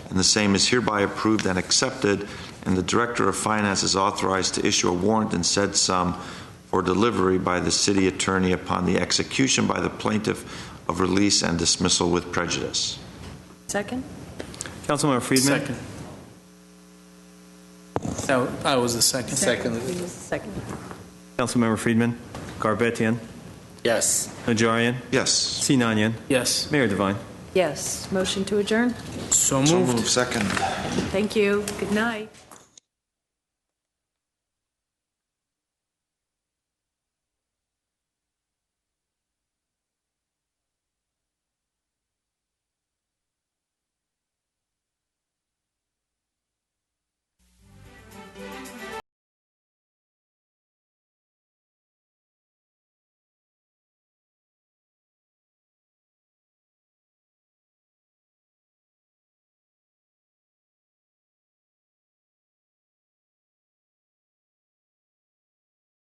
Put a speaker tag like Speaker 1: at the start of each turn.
Speaker 1: and the same is hereby approved and accepted, and the Director of Finance is authorized to issue a warrant in said sum for delivery by the city attorney upon the execution by the plaintiff of release and dismissal with prejudice.
Speaker 2: Second?
Speaker 3: Councilmember Friedman?
Speaker 4: Second. That that was the second.
Speaker 2: Second.
Speaker 3: Councilmember Friedman? Garabetian?
Speaker 4: Yes.
Speaker 3: Najarian?
Speaker 1: Yes.
Speaker 3: Sinanian?
Speaker 4: Yes.
Speaker 3: Mayor Devine?
Speaker 2: Yes. Motion to adjourn?
Speaker 4: So
Speaker 1: So
Speaker 4: moved.
Speaker 1: moved. Second.
Speaker 2: Thank you. Good night.